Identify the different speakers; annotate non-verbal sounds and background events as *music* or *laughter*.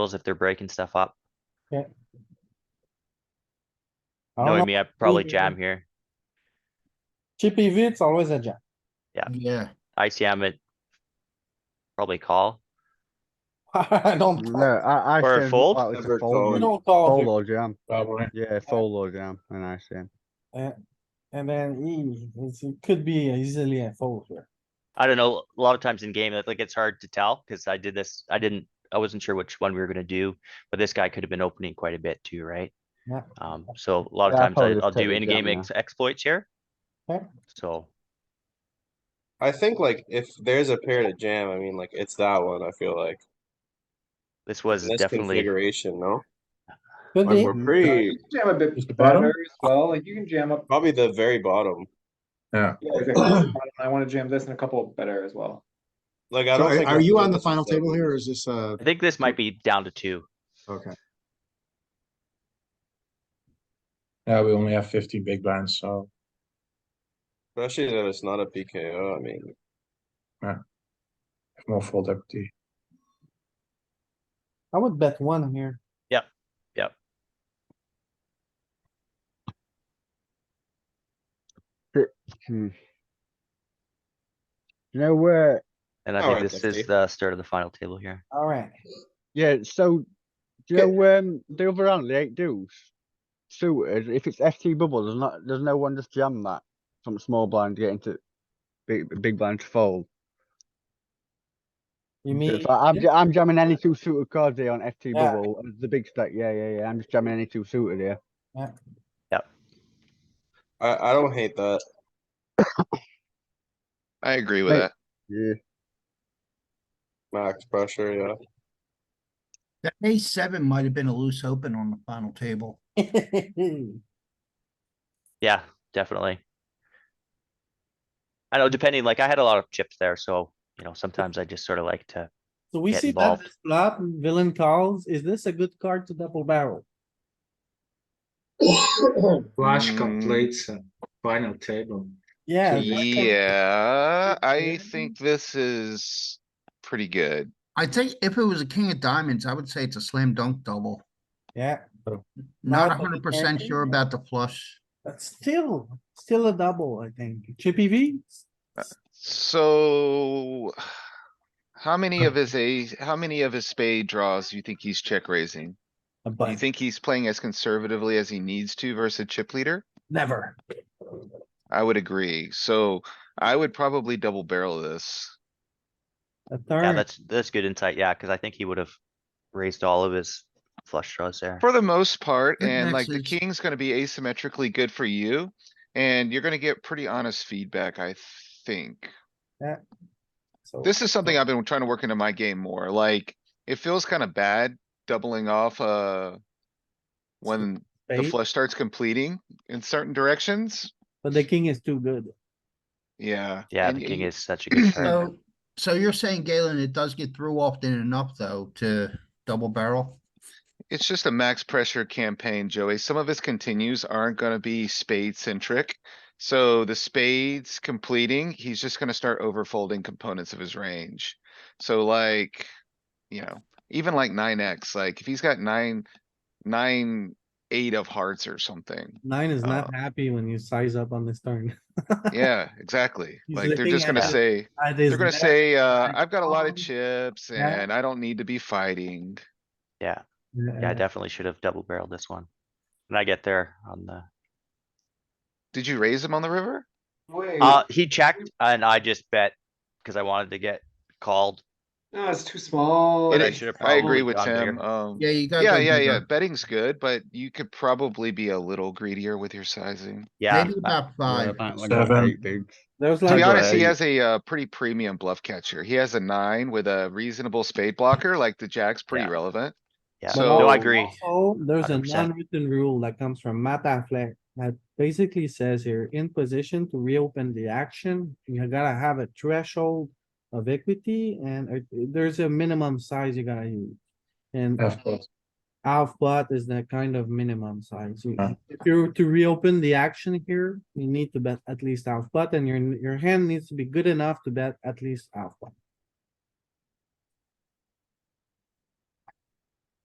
Speaker 1: tables if they're breaking stuff up.
Speaker 2: I don't
Speaker 1: Knowing
Speaker 2: know.
Speaker 1: me, I probably
Speaker 2: Ooh.
Speaker 1: jam here.
Speaker 2: Chippy E V, it's always a jam. *laughs*
Speaker 3: Yeah,
Speaker 1: ICM it. Probably call.
Speaker 2: I don't,
Speaker 4: No,
Speaker 2: call.
Speaker 4: I, I.
Speaker 1: Or a
Speaker 4: assume
Speaker 1: fold?
Speaker 4: that was a
Speaker 5: Never
Speaker 2: we
Speaker 5: fold.
Speaker 4: Fold
Speaker 2: don't call,
Speaker 4: fold
Speaker 2: here.
Speaker 4: or jam,
Speaker 5: Probably.
Speaker 4: yeah, fold or jam, and I see.
Speaker 2: and then E, it's- it could be easily a fold here.
Speaker 1: I don't know, a lot of times in game, like it's hard to tell, cause I did this, I didn't, I wasn't sure which one we were gonna do, but this guy could have been opening quite a bit too, right?
Speaker 2: Yeah.
Speaker 1: Um, so a lot of
Speaker 4: Yeah, I'd
Speaker 1: times
Speaker 4: probably
Speaker 1: I-
Speaker 4: just
Speaker 1: I'll
Speaker 4: take
Speaker 1: do
Speaker 4: the
Speaker 1: in-game
Speaker 4: jam, yeah.
Speaker 1: ex- exploits here.
Speaker 2: Okay.
Speaker 1: So,
Speaker 5: I think like if there's a pair to jam, I mean like it's that one. I feel like
Speaker 1: this was
Speaker 5: this
Speaker 1: definitely,
Speaker 5: configuration, no?
Speaker 2: Could
Speaker 5: Like
Speaker 2: be,
Speaker 5: we're
Speaker 6: Yeah,
Speaker 5: pretty
Speaker 6: You can jam a
Speaker 7: Just the
Speaker 6: bit
Speaker 7: bottom?
Speaker 6: better as well, like you can jam up,
Speaker 5: probably the very bottom.
Speaker 7: Yeah.
Speaker 6: yeah, exactly. Bottom, I wanna jam this and a couple better as well.
Speaker 5: Like
Speaker 3: So
Speaker 5: I don't.
Speaker 3: are
Speaker 5: think
Speaker 3: are
Speaker 5: we're
Speaker 3: you
Speaker 5: doing
Speaker 3: on the
Speaker 5: this
Speaker 3: final
Speaker 5: seven.
Speaker 3: table here or is this, uh,
Speaker 1: I think this might be down to two.
Speaker 3: okay,
Speaker 7: Yeah, we only have fifteen big blinds, so
Speaker 5: Especially that it's not a PKO. I mean,
Speaker 7: have more fold equity.
Speaker 2: I would bet one here.
Speaker 1: Yep, yep.
Speaker 4: Hmm. You know where,
Speaker 1: And I
Speaker 5: All
Speaker 1: think
Speaker 5: right,
Speaker 1: this
Speaker 5: Dusty.
Speaker 1: is the start of the final table here.
Speaker 2: Alright,
Speaker 4: yeah, so, do you
Speaker 3: Okay.
Speaker 4: know, um, the other round, the eight deuce? Suited, if it's ST bubble, there's not, there's no one just jam that from small blind to get into big, big blind to fold.
Speaker 2: you mean,
Speaker 4: But
Speaker 2: *laughs*
Speaker 4: I'm, ja- I'm jamming any two suited cards here on FT
Speaker 2: Yeah.
Speaker 4: bubble, uh, the big stack, yeah, yeah, yeah, I'm just jamming any two suited here.
Speaker 5: I I don't hate that.
Speaker 8: I agree with
Speaker 4: Right.
Speaker 8: that.
Speaker 4: Yeah,
Speaker 5: Max pressure, yeah.
Speaker 9: That ace seven might have been a loose open on the final table.
Speaker 1: Yeah, definitely. I know, depending, like I had a lot of chips there, so, you know, sometimes I just sort of like to,
Speaker 2: so we
Speaker 1: Get
Speaker 2: see that
Speaker 1: involved.
Speaker 2: this flop, villain calls, is this a good card to double barrel?
Speaker 6: Flush
Speaker 8: Mm.
Speaker 6: completes a final table.
Speaker 2: Yeah. this can-
Speaker 8: Yeah, I
Speaker 2: Yeah.
Speaker 8: think this is pretty good.
Speaker 9: I think if it was a king of diamonds, I would say it's a slam dunk double.
Speaker 2: Yeah,
Speaker 9: Not
Speaker 2: Not a
Speaker 9: hundred percent
Speaker 2: big
Speaker 9: sure
Speaker 2: hand.
Speaker 9: about the flush.
Speaker 2: but still, still a double, I think. Chippy V?
Speaker 8: So. How many of his ace, how many of his spade draws do you think he's check raising?
Speaker 2: A
Speaker 8: You
Speaker 2: bunch,
Speaker 8: think he's playing as conservatively as he needs to versus chip leader?
Speaker 9: Never.
Speaker 8: I would agree. So I would probably double barrel this.
Speaker 2: a
Speaker 1: yeah,
Speaker 2: turn,
Speaker 1: that's, that's good insight, yeah, cuz I think he would have raised all of his flush draws there.
Speaker 8: For the most part,
Speaker 9: Good
Speaker 8: and like the
Speaker 9: message.
Speaker 8: king's gonna be asymmetrically good for you. And you're gonna get pretty honest feedback, I think.
Speaker 2: so,
Speaker 8: This is something I've been trying to work into my game more, like, it feels kinda bad doubling off, uh. When the
Speaker 2: spade,
Speaker 8: flush starts completing in certain directions,
Speaker 2: but the king is too good.
Speaker 8: yeah.
Speaker 1: Yeah,
Speaker 8: and
Speaker 1: the
Speaker 8: y-
Speaker 1: king
Speaker 8: y-
Speaker 1: is such a good card.
Speaker 9: So, so you're saying Galen, it does get through often enough though to double barrel?
Speaker 8: It's just a max pressure campaign, Joey. Some of his continues aren't gonna be spade centric. So the spades completing, he's just gonna start overfolding components of his range. So like, you know, even like nine X, like if he's got nine, nine, eight of hearts or something.
Speaker 2: Nine is not
Speaker 8: Uh,
Speaker 2: happy when you size up on this turn. *laughs*
Speaker 8: Yeah, exactly.
Speaker 2: He's
Speaker 8: Like they're
Speaker 2: looking
Speaker 8: just gonna
Speaker 2: at-
Speaker 8: say,
Speaker 2: That is
Speaker 8: they're gonna
Speaker 2: bad.
Speaker 8: say, uh, I've got a lot
Speaker 2: Um,
Speaker 8: of chips
Speaker 2: yeah.
Speaker 8: and I don't need to be fighting.
Speaker 1: Yeah, yeah, I
Speaker 2: Yeah,
Speaker 1: definitely should have double barreled this one. And I get there on the,
Speaker 8: Did you raise him on the river?
Speaker 6: Wait,
Speaker 1: uh, he checked and I just bet, cuz I wanted to get called.
Speaker 6: no, it's too small.
Speaker 8: It
Speaker 1: I
Speaker 8: is-
Speaker 1: should have
Speaker 8: I
Speaker 1: probably
Speaker 8: agree with
Speaker 1: gone bigger.
Speaker 8: Tim, um.
Speaker 9: Yeah, you got.
Speaker 8: Yeah, yeah, yeah, betting's good, but you could probably be a little greedier with your sizing.
Speaker 1: Yeah,
Speaker 9: Maybe
Speaker 1: I-
Speaker 9: about
Speaker 4: Yeah,
Speaker 9: five.
Speaker 4: apparently got
Speaker 7: Seven.
Speaker 4: eight bigs.
Speaker 2: There's
Speaker 8: To
Speaker 2: like,
Speaker 8: be honest, he
Speaker 4: Right.
Speaker 8: has a, uh, pretty premium bluff catcher. He has a nine with a reasonable spade blocker, like the jack's pretty
Speaker 1: Yeah.
Speaker 8: relevant.
Speaker 1: yeah,
Speaker 8: So-
Speaker 1: no, I agree.
Speaker 2: oh, there's a
Speaker 1: 100%.
Speaker 2: non-written rule that comes from Matt Affleck that basically says you're in position to reopen the action. You gotta have a threshold of equity and uh, there's a minimum size you gotta use. And
Speaker 7: Half pot.
Speaker 2: half pot is the kind of minimum size. You-
Speaker 7: Huh.
Speaker 2: If you're to reopen the action here, you need to bet at least half pot and your, your hand needs to be good enough to bet at least half pot.